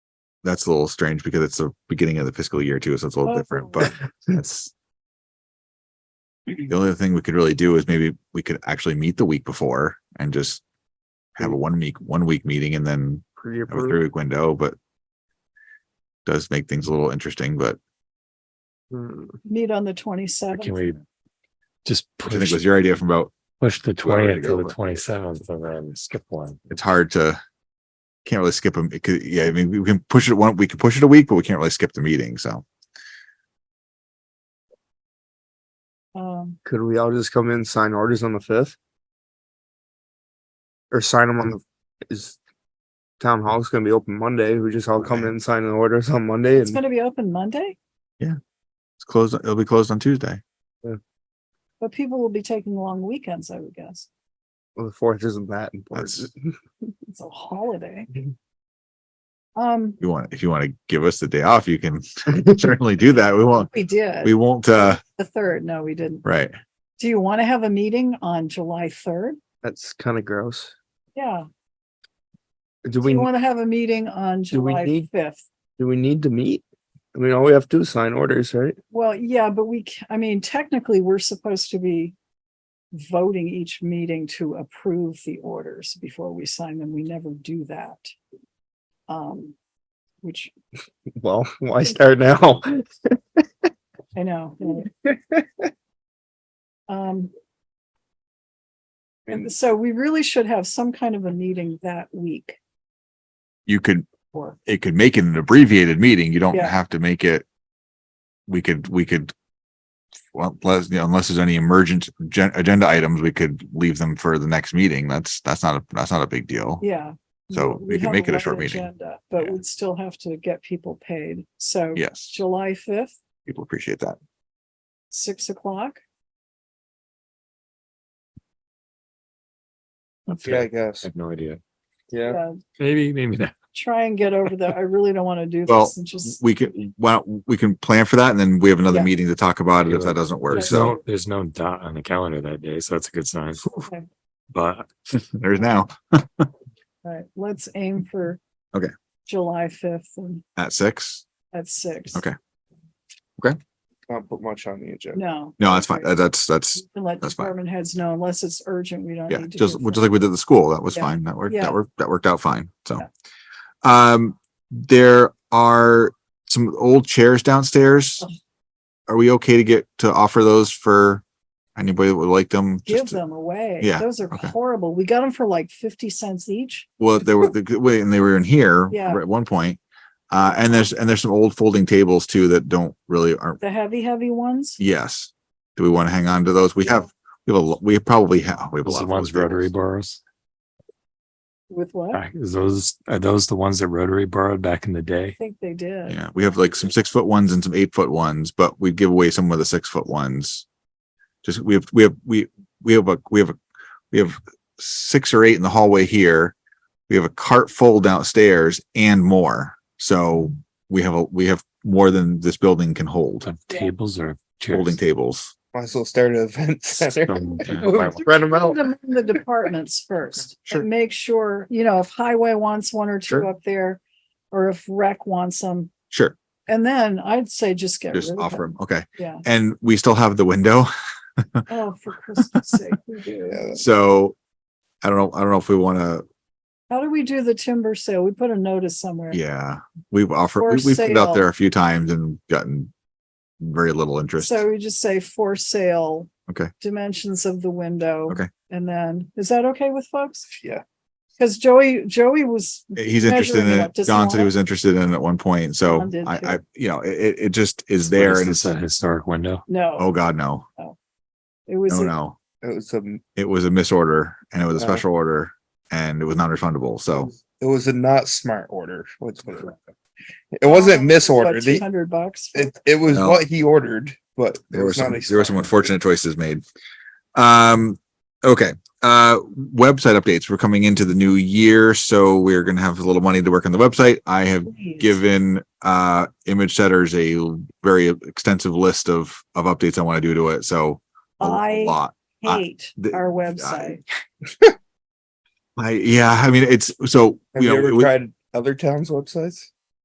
that's a little strange because it's the beginning of the fiscal year too, so it's a little different, but that's. The only other thing we could really do is maybe we could actually meet the week before and just have a one week, one week meeting and then have a three Pre-approved. week window, but. Does make things a little interesting, but Hmm. meet on the Or twenty-seventh. Can we just which I think push, was your idea from about, push the Well, there you twentieth to go, the but- twenty seventh and then skip one? it's hard to. Can't really skip them. It could, yeah, I mean, we can push it one, we can push it a week, but we can't really skip the meeting, so. Um, Could we all just come in, sign orders on the fifth? Or sign them on the, is town hall's gonna be open Monday, we just all come in and sign the orders on Monday it's and gonna be open Monday, It's closed, it'll be closed on Tuesday. but people will be taking long weekends, I would guess. well, the fourth isn't that important. That's- It's a holiday. Mhm. Um, You want, if you want to give us the day off, you can certainly do that. We won't, we did, we won't, uh, the third, no, we didn't. right. Do you want to have a meeting on July third? That's kinda gross. Yeah, Do do we, you want to have a meeting on Do we July need- fifth? do we need to meet? I mean, all we have to do is sign orders, right? Well, yeah, but we, c- I mean, technically, we're supposed to be voting each meeting to approve the orders before we sign them. We never do that. Um, which Well, why start now? I know. right. Um, and so we really should have some kind of a meeting that week You could, or, it could make it an abbreviated meeting. You don't Yeah. have to make it. We could, we could. Well, unless, you know, unless there's any emergent gen- agenda items, we could leave them for the next meeting. That's, that's not, a that's not a big deal. yeah. So we can have make it a light short meeting. agenda, But Yeah. we'd still have to get people paid. So Yes, July fifth, people appreciate that. six o'clock. Okay, I guess. have no idea. Yeah. Uh, Maybe, maybe not. Try and get over that. I really don't want to do Well, this and just, We can, well, we can plan for that and then we have another Yeah. meeting to talk about it if Yeah. that doesn't work. There's So no, there's no dot on the calendar that day, so that's a good sign. Okay. But there's now all right, let's aim for. Okay. July fifth and at six. at six. Okay. Not put much on the agenda. No. No, that's fine. Okay. That- That's, that's We can Let that's fine. department heads know unless it's urgent, we don't Yeah, need to. just, hear just from- like we did at the school, that was Yeah. fine. That worked, Yeah. that worked, that worked out fine. So. Yeah. Um, there are some old chairs downstairs. Oh. Are we okay to get, to offer those for anybody that would like them? Give Just, to- them away. Yeah, Those are okay. horrible. We got them for like fifty cents each. well, they were, the wait, and they were in here Yeah. at one point. Uh, and there's, and there's some old folding tables too that don't really aren't, The heavy, heavy ones. yes. Do we want to hang on to those? We have, we have a, lo- we probably have, we have a those lot. are the of ones folding Rotary tables. borrows. With what? I Back- Is those, are those the ones that Rotary borrowed back in the day? think they did. Yeah, we have like some six foot ones and some eight foot ones, but we give away some of the six foot ones. Just we have we have we we have a we have a we have six or eight in the hallway here. We have a cart full downstairs and more. So we have a we have more than this building can hold. Of Yeah. Tables or chairs? Holding tables. Might as well start an event center. Some- Spread them out. Put 'em in The departments first. Sure. And make sure, you know, if highway wants one or two Sure. up there, or if rec wants them. Sure, And then I'd say just get rid just of offer them. them. Okay, Yeah. and we still have the window. Oh, for Christmas sake, we do. So I don't know. I don't know if we want to. How do we do the timber sale? We put a notice somewhere. Yeah, we've offered. For We, we've put it sale. out there a few times and gotten very little interest. So we just say for sale. Okay. Dimensions of the window. Okay. And then, is that okay with folks? Yeah. Because Joey, Joey was, Eh, he's interested in measuring it up it. to Don said smaller? he was interested in it at one point. So Don did I, I, too. you know, it- it, it just is there and It's it's, a historic window. oh no, God, no, it was, no, a- no. It was a It was a misorder and it was a Yeah. special order and it was non-refundable. So It was a not smart order. Let's put it that way. It wasn't misordered. Two The- hundred bucks. It, it was No. what he ordered, but it there were was not some, a there were some smart- unfortunate choices made. Um, okay. Uh, website updates. We're coming into the new year. So we're going to have a little money to work on the website. I have Please. given uh image setters a very extensive list of, of updates I want to do to it. So a I- lot. I- Hate the- our website. I yeah, I mean it's so Have you you know ever it was- tried other towns' websites?